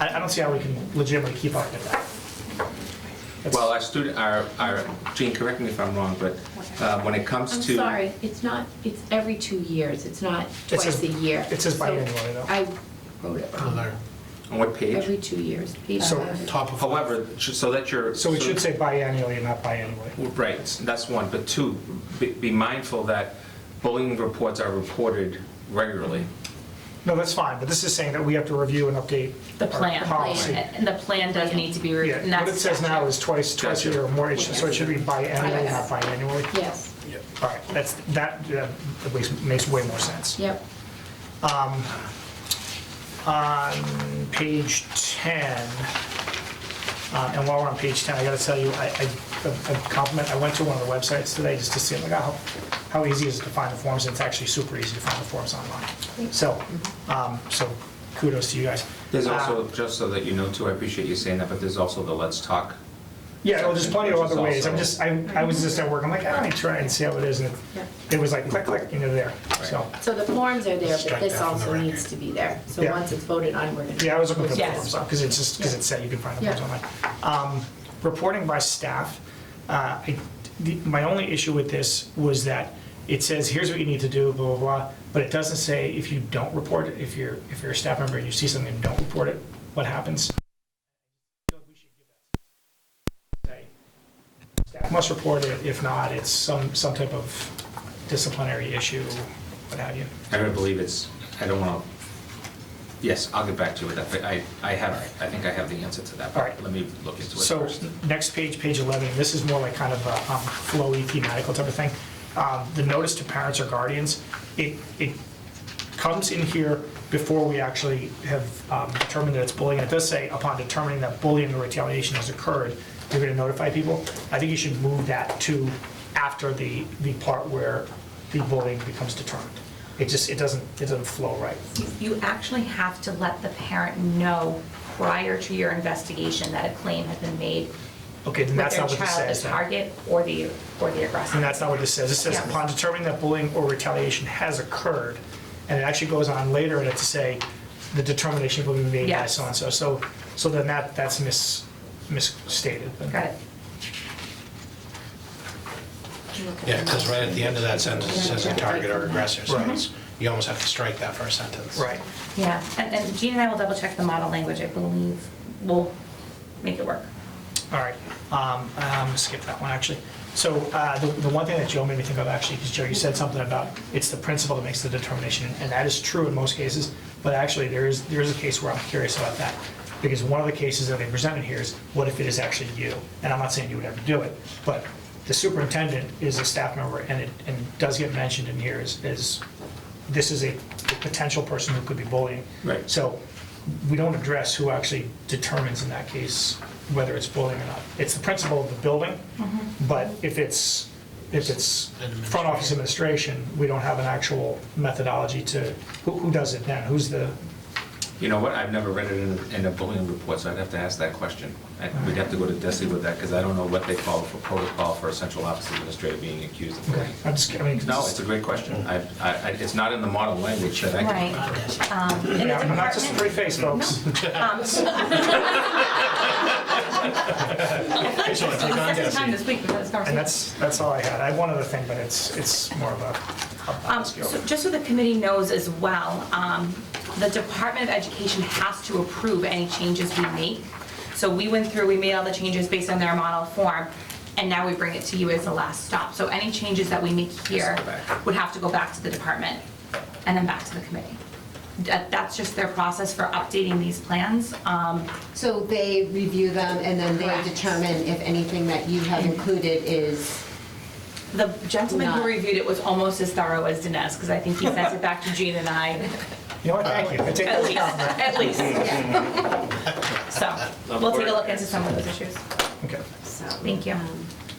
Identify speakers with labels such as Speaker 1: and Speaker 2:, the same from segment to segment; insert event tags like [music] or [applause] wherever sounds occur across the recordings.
Speaker 1: I, I don't see how we can legitimately keep up with that. That's-
Speaker 2: Well, our student, our, our, Gene, correct me if I'm wrong, but uh, when it comes
Speaker 3: I'm
Speaker 2: to.
Speaker 3: sorry, it's not, it's every two years, it's not
Speaker 1: It says-
Speaker 3: twice a year.
Speaker 1: it says
Speaker 3: So
Speaker 1: biannual, I know.
Speaker 3: I wrote it
Speaker 4: on there,
Speaker 2: On what page?
Speaker 3: every two years. page
Speaker 1: So-
Speaker 5: Uh-huh.
Speaker 3: five.
Speaker 4: top of.
Speaker 2: However, sh- so that you're.
Speaker 1: So it should say biannually and not biannually.
Speaker 2: Right, that's one, but two, be- be mindful that bullying reports are reported regularly.
Speaker 1: No, that's fine, but this is saying that we have to review and update
Speaker 5: The
Speaker 1: our
Speaker 5: plan,
Speaker 1: policy.
Speaker 5: and the plan does need to be, re- and
Speaker 1: Yeah,
Speaker 5: that's.
Speaker 1: what it says now is twice, twice a
Speaker 2: Gotcha.
Speaker 1: year or more, it should- so it should be biannually, not
Speaker 3: Yes.
Speaker 1: biannually.
Speaker 3: Yes,
Speaker 1: All right, that's, that uh, at least makes way more sense.
Speaker 3: yep.
Speaker 1: On page 10, uh, and while we're on page 10, I gotta tell you, I, I- a a compliment, I went to one of the websites today just to see, like, how, how easy is it to find the forms, and it's actually super easy to find the forms online. So, um, so kudos to you guys.
Speaker 2: There's
Speaker 1: Uh,
Speaker 2: also, just so that you know too, I appreciate you saying that, but there's also the Let's Talk.
Speaker 1: Yeah, well, there's plenty of
Speaker 2: Which is
Speaker 1: other ways. I'm
Speaker 2: also-
Speaker 1: just, I, I was just at work, I'm like, ah, let me try and see how it is, and
Speaker 3: Yeah.
Speaker 1: it- it was like click, click, and you're there, so.
Speaker 3: So the forms are there, but
Speaker 4: Strike
Speaker 3: this
Speaker 4: that from the
Speaker 3: also
Speaker 4: record.
Speaker 3: needs to be there. So
Speaker 1: Yeah.
Speaker 3: once it's voted on, we're gonna.
Speaker 1: Yeah, I was looking for the
Speaker 5: Yes.
Speaker 1: forms, because it's just, because it said you can find the forms
Speaker 3: Yeah.
Speaker 1: online. Um, Reporting by staff, uh, I- the- my only issue with this was that it says, here's what you need to do, blah, blah, blah, but it doesn't say if you don't report it, if you're, if you're a staff member and you see something and don't report it, what happens? Say, Staff Must report it, if not, it's some, some type of disciplinary issue, what have you.
Speaker 2: I don't believe it's, I don't want to, yes, I'll get back to you with that, but I, I have, I think I have the answer to that. but
Speaker 1: All right.
Speaker 2: Let me look into it
Speaker 1: So,
Speaker 2: first.
Speaker 1: next page, page 11, this is more like kind of a um, flowy thematical type of thing. Um, The notice to parents or guardians, it, it comes in here before we actually have um, determined that it's bullying. It does say upon determining that bullying or retaliation has occurred, you're going to notify people. I think you should move that to after the, the part where the bullying becomes determined. It just, it doesn't, it doesn't flow right.
Speaker 5: You actually have to let the parent know prior to your investigation that a claim has been made
Speaker 1: Okay, then
Speaker 5: with
Speaker 1: that's
Speaker 5: their
Speaker 1: not what this says.
Speaker 5: child, the
Speaker 1: then.
Speaker 5: target, or the, or the aggressor.
Speaker 1: And that's not what this says. It says
Speaker 5: Yeah.
Speaker 1: upon determining that bullying or retaliation has occurred, and it actually goes on later in it to say the determination will be made by
Speaker 5: Yes.
Speaker 1: so and so. So, so then that, that's mis, misstated.
Speaker 5: Got it.
Speaker 4: Yeah, because right at the end of that sentence, it says a target or aggressor, so
Speaker 1: Right.
Speaker 4: it's- you almost have to strike that first sentence.
Speaker 1: Right.
Speaker 5: Yeah, and, and Jean and I will double check the model language, I believe, we'll make it work.
Speaker 1: All right. Um, um, skip that one, actually. So, uh, the, the one thing that Joe made me think of, actually, because Joe, you said something about it's the principal that makes the determination, and that is true in most cases, but actually, there is, there is a case where I'm curious about that. Because one of the cases that they presented here is, what if it is actually you? And I'm not saying you would ever do it, but the superintendent is a staff member, and it, and does get mentioned in here is, is, this is a potential person who could be bullying.
Speaker 2: Right.
Speaker 1: So, we don't address who actually determines in that case whether it's bullying or not. It's the principal of the building,
Speaker 5: Mm-hmm.
Speaker 1: but if it's, if it's front office administration, we don't have an actual methodology to, who, who does it then? Who's the,
Speaker 2: You know what, I've never read it in, a- in a bullying report, so I'd have to ask that question. I- We'd have to go to Desi with that, because I don't know what they follow for protocol for a central office administrator being accused of bullying.
Speaker 1: I'm just, I mean.
Speaker 2: No, it's a great question. I, I, I- it's not in the model language that I can.
Speaker 5: Um, in the
Speaker 1: Yeah, I'm not just a
Speaker 5: department-
Speaker 1: pretty face, folks. [laughs]
Speaker 5: [laughs] Um,
Speaker 4: So I take on
Speaker 5: Second time
Speaker 4: Desi.
Speaker 5: this week we've had this
Speaker 1: And
Speaker 5: conversation.
Speaker 1: that's, that's all I had. I had one other thing, but it's, it's more of a- a,
Speaker 5: Um,
Speaker 1: a skill.
Speaker 5: so Just so the committee knows as well, um, the Department of Education has to approve any changes we make. So we went through, we made all the changes based on their model form, and now we bring it to you as the last stop. So any changes that we make here
Speaker 2: Has to go back.
Speaker 5: would have to go back to the department and then back to the committee. That- That's just their process for updating these plans. Um,
Speaker 6: So they review them and then
Speaker 5: Correct.
Speaker 6: they determine if anything that you have included is,
Speaker 5: The gentleman who
Speaker 6: Not-
Speaker 5: reviewed it was almost as thorough as Dinesh, because I think he sent it back to Jean and I
Speaker 1: You know what, thank you. I take that
Speaker 5: At
Speaker 1: as a
Speaker 5: least,
Speaker 1: compliment.
Speaker 5: at least. So, we'll take a look into some of those issues.
Speaker 1: Okay.
Speaker 6: so.
Speaker 5: Thank you.
Speaker 3: um,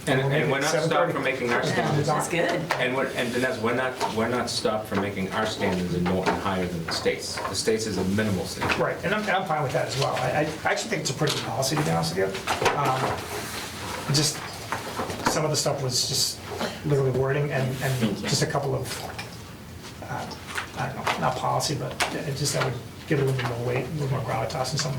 Speaker 2: And, and we're not stopped
Speaker 1: 7:30.
Speaker 2: from making our standards.
Speaker 1: That's
Speaker 5: good.
Speaker 2: And we're, and Dinesh, we're not, we're not stopped from making our standards in Norton higher than the state's. The state's is a minimal standard.
Speaker 1: Right, and I'm, and I'm fine with that as well. I, I actually think it's a pretty good policy, to be honest with you. Um, Just, some of the stuff was just literally wording and, and just a couple of, uh, I don't know, not policy, but it just, I would give it a little bit more weight, a little more gravitas in some